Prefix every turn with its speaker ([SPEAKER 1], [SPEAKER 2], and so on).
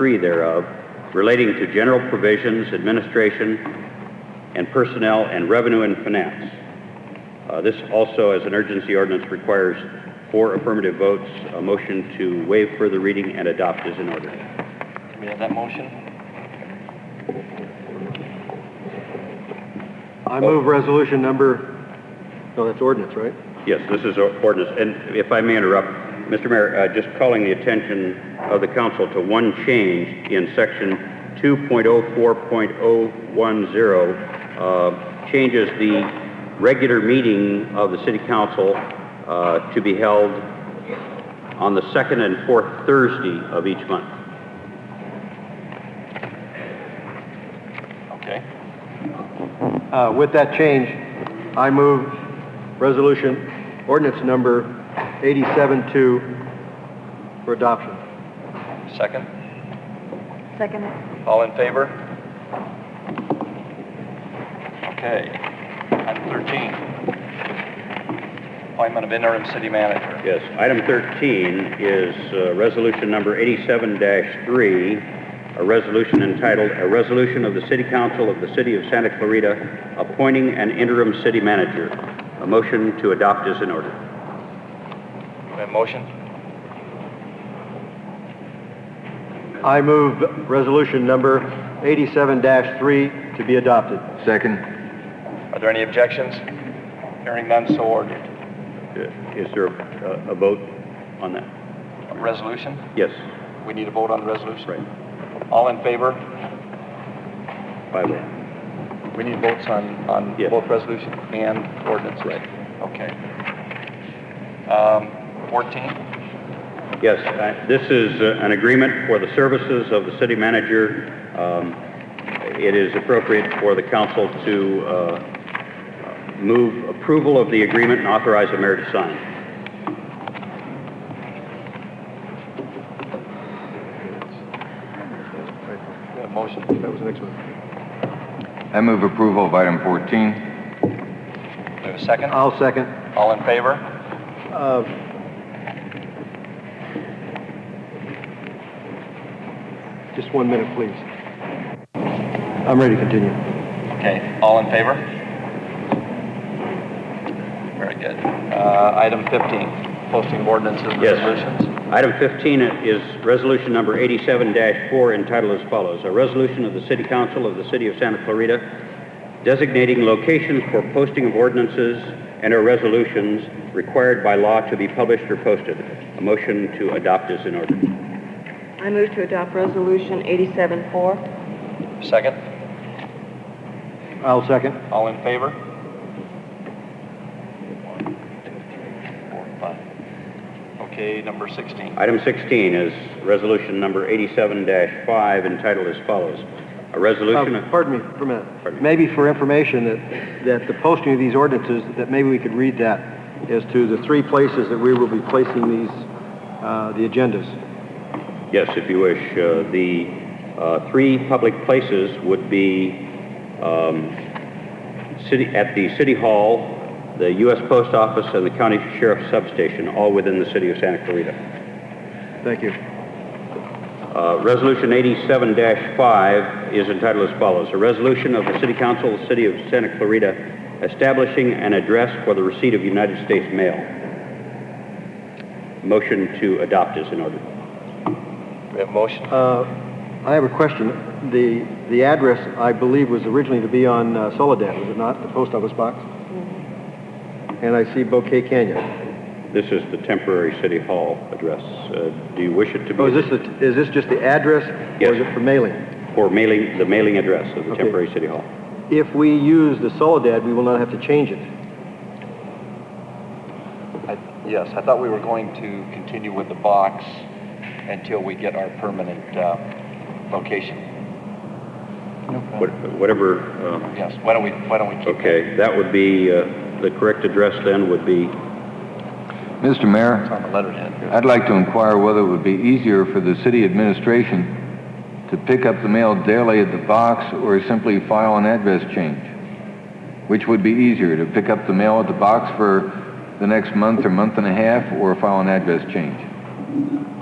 [SPEAKER 1] three thereof relating to general provisions, administration, and personnel and revenue and finance. Uh, This also, as an urgency ordinance, requires four affirmative votes. A motion to waive further reading and adopt is in order.
[SPEAKER 2] We have that motion?
[SPEAKER 3] I move resolution number, no, that's ordinance, right?
[SPEAKER 1] Yes, this is or- ordinance. And if I may interrupt, Mr. Mayor, uh, just calling the attention of the council to one change in section 2.04.010, uh, changes the regular meeting of the city council uh, to be held on the second and fourth Thursday of each month.
[SPEAKER 2] Okay.
[SPEAKER 3] Uh, With that change, I move resolution, ordinance number 87-2 for adoption.
[SPEAKER 2] Second?
[SPEAKER 4] Second it.
[SPEAKER 2] All in favor? Okay. Item 13. Appointment of interim city manager.
[SPEAKER 1] Yes, item 13 is uh, resolution number 87-3, a resolution entitled, "A Resolution of the City Council of the City of Santa Clarita Appointing an Interim City Manager." A motion to adopt is in order.
[SPEAKER 2] We have a motion?
[SPEAKER 3] I move resolution number 87-3 to be adopted.
[SPEAKER 5] Second.
[SPEAKER 2] Are there any objections? Hearing none, so ordered.
[SPEAKER 1] Is there a a vote on that?
[SPEAKER 2] Resolution?
[SPEAKER 1] Yes,
[SPEAKER 2] We need a vote on the resolution?
[SPEAKER 1] right,
[SPEAKER 2] All in favor?
[SPEAKER 1] by vote.
[SPEAKER 2] We need votes on, on
[SPEAKER 1] Yes.
[SPEAKER 2] both resolution and ordinance. Right. Okay. Um, 14?
[SPEAKER 1] Yes, I- this is uh, an agreement for the services of the city manager. Um, It is appropriate for the council to uh, Move approval of the agreement and authorize the mayor to sign.
[SPEAKER 2] We have a motion?
[SPEAKER 3] That was the next one.
[SPEAKER 5] I move approval of item 14.
[SPEAKER 2] We have a second?
[SPEAKER 3] I'll second.
[SPEAKER 2] All in favor?
[SPEAKER 3] Uh, Just one minute, please. I'm ready to continue.
[SPEAKER 2] Okay, all in favor? Very good. Uh, item 15, posting of ordinances and
[SPEAKER 1] Yes.
[SPEAKER 2] resolutions.
[SPEAKER 1] Item 15 is resolution number 87-4 entitled as follows, "A resolution of the City Council of the City of Santa Clarita designating locations for posting of ordinances and or resolutions required by law to be published or posted." A motion to adopt is in order.
[SPEAKER 4] I move to adopt Resolution 87-4.
[SPEAKER 2] Second,
[SPEAKER 3] I'll second.
[SPEAKER 2] all in favor? Okay, number 16.
[SPEAKER 1] Item 16 is resolution number 87-5 entitled as follows, "A resolution..."
[SPEAKER 3] Uh,
[SPEAKER 1] of-
[SPEAKER 3] Pardon me for a minute.
[SPEAKER 1] Pardon.
[SPEAKER 3] Maybe for information that, that the posting of these ordinances, that maybe we could read that as to the three places that we will be placing these, uh, the agendas.
[SPEAKER 1] Yes, if you wish. Uh, The uh, three public places would be um, city- at the City Hall, the U.S. Post Office, and the County Sheriff's Substation, all within the city of Santa Clarita.
[SPEAKER 3] Thank you.
[SPEAKER 1] Uh, Resolution 87-5 is entitled as follows, "A resolution of the City Council of the City of Santa Clarita establishing an address for the receipt of United States mail." Motion to adopt is in order.
[SPEAKER 2] We have a motion?
[SPEAKER 3] Uh, I have a question. The, the address, I believe, was originally to be on uh, Soledad, was it not? The post office box? And I see Bouquet Canyon.
[SPEAKER 1] This is the temporary city hall address. Uh, Do you wish it to be?
[SPEAKER 3] Oh, is this, the- is this just the address? Or is
[SPEAKER 1] Yes.
[SPEAKER 3] it for mailing?
[SPEAKER 1] For mailing, the mailing address of the
[SPEAKER 3] Okay.
[SPEAKER 1] temporary city hall.
[SPEAKER 3] If we use the Soledad, we will not have to change it.
[SPEAKER 2] I- Yes, I thought we were going to continue with the box until we get our permanent uh, location.
[SPEAKER 1] What- Whatever, uh,
[SPEAKER 2] Yes, why don't we, why don't we keep that?
[SPEAKER 1] okay, that would be, uh, the correct address then would be,
[SPEAKER 5] Mr. Mayor,
[SPEAKER 2] It's on the letterhead.
[SPEAKER 5] I'd like to inquire whether it would be easier for the city administration to pick up the mail daily at the box or simply file an address change? Which would be easier, to pick up the mail at the box for the next month or month and a half or file an address change?